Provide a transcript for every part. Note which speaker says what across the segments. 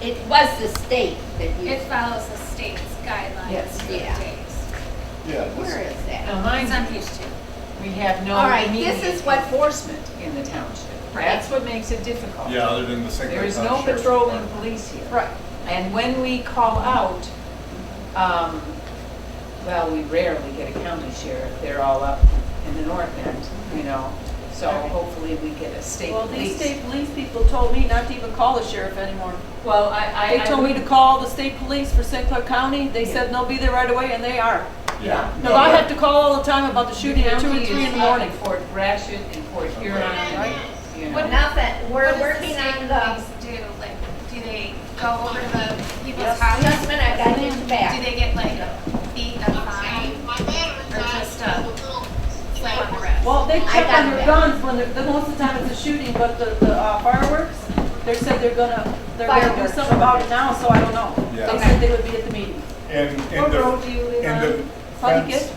Speaker 1: It was the state that you,
Speaker 2: It follows the state's guidelines
Speaker 1: Yes.
Speaker 2: for
Speaker 1: Yeah.
Speaker 2: days.
Speaker 3: Yeah,
Speaker 1: where
Speaker 3: this-
Speaker 1: is that?
Speaker 4: Now,
Speaker 5: Uh-huh.
Speaker 2: It's on
Speaker 4: mind
Speaker 2: page two.
Speaker 4: you, we have no
Speaker 1: All right, this
Speaker 4: immediate
Speaker 1: is what-
Speaker 4: enforcement in the township.
Speaker 2: Right.
Speaker 4: That's what makes it difficult.
Speaker 3: yeah, other than the St.
Speaker 4: There
Speaker 3: Clair
Speaker 4: is
Speaker 3: County
Speaker 4: no
Speaker 3: Sheriff's
Speaker 4: patrolling
Speaker 3: Department.
Speaker 4: police here.
Speaker 1: Right.
Speaker 4: And when we call out, um, well, we rarely get a county sheriff, they're all up in the north end, you know, so
Speaker 5: Right.
Speaker 4: hopefully we get a state
Speaker 5: Well,
Speaker 4: police.
Speaker 5: these state police people told me not to even call the sheriff anymore.
Speaker 6: Well, I, I.
Speaker 5: They
Speaker 6: I
Speaker 5: told me
Speaker 6: would-
Speaker 5: to call the state police for St. Clair County. They said they'll be there right away, and they are.
Speaker 3: Yeah.
Speaker 5: Because I have to call all the time about the shooting at two
Speaker 4: County
Speaker 5: and three
Speaker 4: is uh,
Speaker 5: in the
Speaker 4: up
Speaker 5: morning.
Speaker 4: Fort Gratiot and Fort Huron, right? You know.
Speaker 1: Well, Not that, we're
Speaker 2: What does the
Speaker 1: working
Speaker 2: state
Speaker 1: on the,
Speaker 2: police Do, like, do they go over to the people's
Speaker 5: Yes.
Speaker 1: just a
Speaker 2: houses?
Speaker 1: minute, I gotta get you
Speaker 2: Do
Speaker 1: back.
Speaker 2: they get like beat a fine or just uh, a slap on the wrist?
Speaker 5: Well, they
Speaker 1: I
Speaker 5: check
Speaker 1: got
Speaker 5: on their
Speaker 1: that.
Speaker 5: guns when they're, the most of the time it's a shooting, but the, the uh, fireworks, they said they're gonna, they're gonna do
Speaker 1: Fireworks.
Speaker 5: something about it now, so I don't know.
Speaker 3: Yeah.
Speaker 5: They said they would be at the meeting.
Speaker 3: And,
Speaker 5: What
Speaker 3: and
Speaker 5: road
Speaker 3: the,
Speaker 5: do you live
Speaker 3: and the
Speaker 5: on?
Speaker 4: uh,
Speaker 3: fence,
Speaker 5: Puttykitt?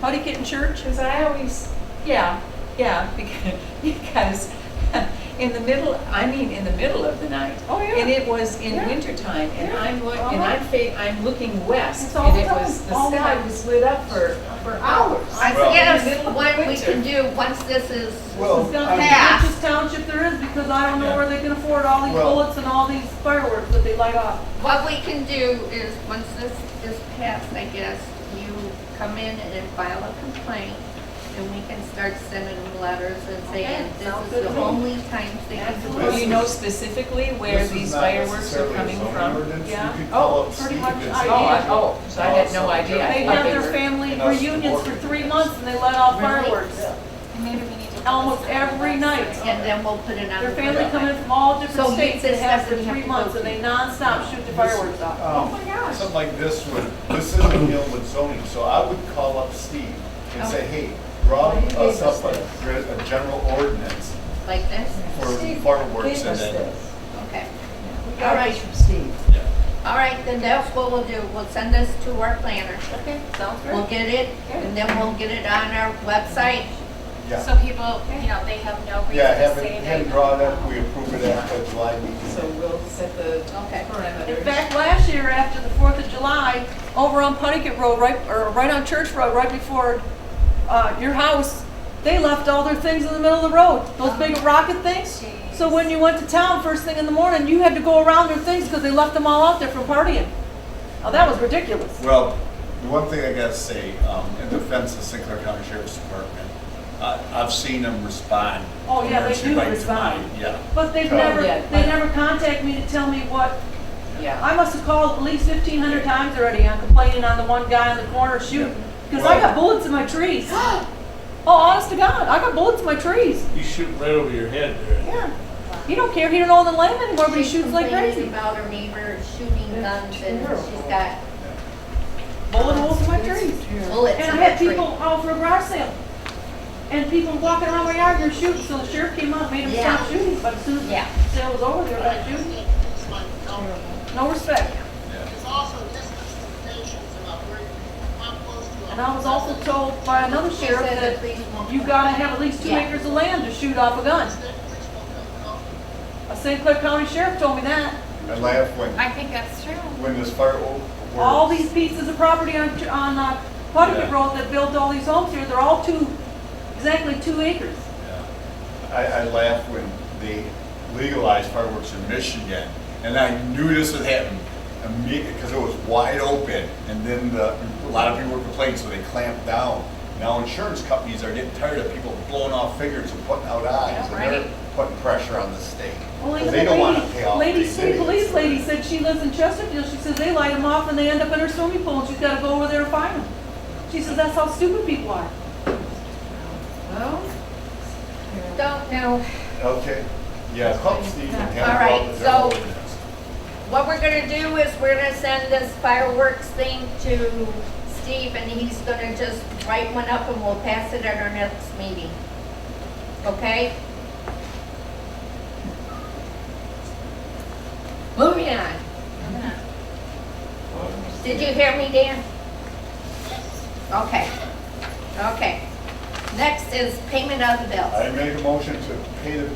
Speaker 5: Puttykitt and Church?
Speaker 4: Because I always, yeah, yeah, because, because in the middle, I mean, in the middle of the night.
Speaker 5: Oh, yeah.
Speaker 4: And it was in
Speaker 5: Yeah.
Speaker 4: wintertime, and
Speaker 5: Yeah.
Speaker 4: I'm look, and I'm fa, I'm looking west,
Speaker 5: It's all
Speaker 4: and it
Speaker 5: done,
Speaker 4: was, the
Speaker 5: all
Speaker 4: sky
Speaker 5: done.
Speaker 4: was lit up for, for hours.
Speaker 1: I
Speaker 3: Well-
Speaker 1: guess what we can do, once this is,
Speaker 3: well,
Speaker 5: It's not
Speaker 3: I-
Speaker 5: the
Speaker 1: Yeah.
Speaker 5: richest township there is, because I don't know where they can afford all these
Speaker 3: Well-
Speaker 5: bullets and all these fireworks that they light off.
Speaker 1: what we can do is, once this is passed, I guess, you come in and then file a complaint, and we can start sending them letters and saying, this
Speaker 5: sounds
Speaker 1: is
Speaker 5: good
Speaker 1: the
Speaker 5: to me.
Speaker 1: only time they can do
Speaker 5: Absolutely.
Speaker 4: Do
Speaker 3: This
Speaker 4: you know
Speaker 3: is-
Speaker 4: specifically where
Speaker 3: this is
Speaker 4: these
Speaker 3: not
Speaker 4: fireworks are
Speaker 3: necessarily a
Speaker 4: coming
Speaker 3: zoning
Speaker 4: from?
Speaker 3: ordinance. You
Speaker 5: Yeah.
Speaker 3: could call
Speaker 5: Oh,
Speaker 3: up
Speaker 5: pretty
Speaker 3: Steve
Speaker 5: much
Speaker 3: and
Speaker 5: I
Speaker 3: say-
Speaker 5: did. Oh, I-
Speaker 4: oh, so I had no
Speaker 3: Also,
Speaker 4: idea.
Speaker 3: yeah.
Speaker 5: They
Speaker 4: thought
Speaker 5: have
Speaker 4: they
Speaker 5: their
Speaker 4: were-
Speaker 5: family
Speaker 3: and us
Speaker 5: reunions for
Speaker 3: supporting
Speaker 5: three
Speaker 3: this.
Speaker 5: months and they let off
Speaker 3: Really?
Speaker 5: fireworks,
Speaker 2: And Maybe we need to.
Speaker 5: almost every night.
Speaker 1: And then we'll put it on.
Speaker 5: Their
Speaker 1: the
Speaker 5: family
Speaker 1: website.
Speaker 5: come in from all
Speaker 1: So
Speaker 5: different
Speaker 1: you
Speaker 5: states
Speaker 1: said
Speaker 5: and have
Speaker 1: stuff
Speaker 5: for
Speaker 1: that you have
Speaker 5: three
Speaker 1: to
Speaker 5: months
Speaker 1: go
Speaker 5: and they nonstop shoot the fireworks off.
Speaker 4: Oh
Speaker 3: Um, Something like this would, this isn't Gilwood zoning, so I would call up Steve and say, hey, draw
Speaker 4: Oh, you gave
Speaker 3: us
Speaker 4: us
Speaker 3: up a, a general ordinance
Speaker 1: Like this?
Speaker 3: for
Speaker 4: Steve
Speaker 3: fireworks
Speaker 4: Gave
Speaker 3: and
Speaker 4: us
Speaker 3: then.
Speaker 4: this.
Speaker 1: Okay.
Speaker 4: We
Speaker 1: All
Speaker 4: got
Speaker 1: right.
Speaker 4: this from Steve.
Speaker 3: Yeah.
Speaker 1: All right, then that's what we'll do. We'll send this to our planner.
Speaker 5: Okay, sounds
Speaker 1: We'll get it, and then we'll get it on our website.
Speaker 3: Yeah,
Speaker 2: So people, you know, they have no reason
Speaker 3: yeah,
Speaker 2: to
Speaker 3: have
Speaker 2: say
Speaker 3: it,
Speaker 2: they.
Speaker 3: have it drawn up, we approve it after the July meeting.
Speaker 4: So we'll set the
Speaker 1: Okay.
Speaker 4: parameters.
Speaker 5: In fact, last year after the Fourth of July, over on Puttigat Road, right, or right on Church Road, right before, uh, your house, they left all their things in the middle of the road, those big rocket things. So when you went to town first thing in the morning, you had to go around their things because they left them all out there from partying. Oh, that was ridiculous.
Speaker 3: Well, the one thing I gotta say, um, in defense of St. Clair County Sheriff's Department, uh, I've seen them respond.
Speaker 5: Oh, yeah, they
Speaker 3: emergency
Speaker 5: do
Speaker 3: right to
Speaker 5: respond.
Speaker 3: mine, Yeah.
Speaker 5: But they've
Speaker 3: Oh,
Speaker 5: never,
Speaker 4: yeah.
Speaker 5: they never contact me to tell me what,
Speaker 4: Yeah.
Speaker 5: I must have called at least fifteen hundred times already, I'm complaining on the one guy in the corner shooting, because I got bullets in my trees. Oh, honest to God, I got bullets in my trees,
Speaker 7: You shoot right over your head there.
Speaker 5: yeah. He don't care, he don't own the land anymore, but he shoots like
Speaker 1: She's
Speaker 5: crazy.
Speaker 1: complaining about her neighbor shooting guns, and
Speaker 4: terrible.
Speaker 1: she's got
Speaker 5: Bullet holes in my trees.
Speaker 1: bullets in
Speaker 5: And I
Speaker 1: her
Speaker 5: had
Speaker 1: tree.
Speaker 5: people out for a garage sale, and people walking around my yard, they're shooting, so the sheriff came out, made them stop
Speaker 1: Yeah.
Speaker 5: shooting, but as soon as
Speaker 1: Yeah.
Speaker 5: the sale was over, they were back shooting. No respect.
Speaker 8: It's also distance limitations about where, how close to. a-
Speaker 5: And I was also told by another
Speaker 1: She
Speaker 5: sheriff
Speaker 1: said the
Speaker 5: that
Speaker 1: police won't.
Speaker 5: you gotta have at least two
Speaker 1: Yeah.
Speaker 5: acres of land to shoot off a gun.
Speaker 8: State police will come
Speaker 5: A
Speaker 8: out.
Speaker 5: St. Clair County sheriff told me that.
Speaker 3: I laugh when,
Speaker 2: I think that's true.
Speaker 3: when this fireworks.
Speaker 5: All these pieces of property on, on uh, Puttigat
Speaker 3: Yeah.
Speaker 5: Road that built all these homes here, they're all two, exactly two acres.
Speaker 3: Yeah. I, I laugh when they legalized fireworks in Michigan, and I knew this would happen immediately, because it was wide open, and then the, a lot of people were complaining, so they clamped down. Now insurance companies are getting tired of people blowing off fingers and putting out eyes, and they're putting pressure on the state.
Speaker 5: Well,
Speaker 3: 'cause
Speaker 5: even
Speaker 3: They
Speaker 5: the
Speaker 3: don't want to
Speaker 5: lady-
Speaker 3: pay off
Speaker 5: Lady,
Speaker 3: these
Speaker 5: city
Speaker 3: idiots.
Speaker 5: police lady said she lives in Chesterfield, she says they light them off and they end up in her swimming pool, and she's gotta go over there and find them. She says that's how stupid people are.
Speaker 4: Well,
Speaker 1: Don't know.
Speaker 3: Okay, yeah, call Steve and
Speaker 1: All
Speaker 3: have
Speaker 1: right,
Speaker 3: him
Speaker 1: so-
Speaker 3: go up there.
Speaker 1: What we're gonna do is we're gonna send this fireworks thing to Steve, and he's gonna just write one up, and we'll pass it at our next meeting. Okay? Moving on. Did you hear me, Dan? Okay. Okay. Next is payment of the bills.
Speaker 3: I make a motion to pay the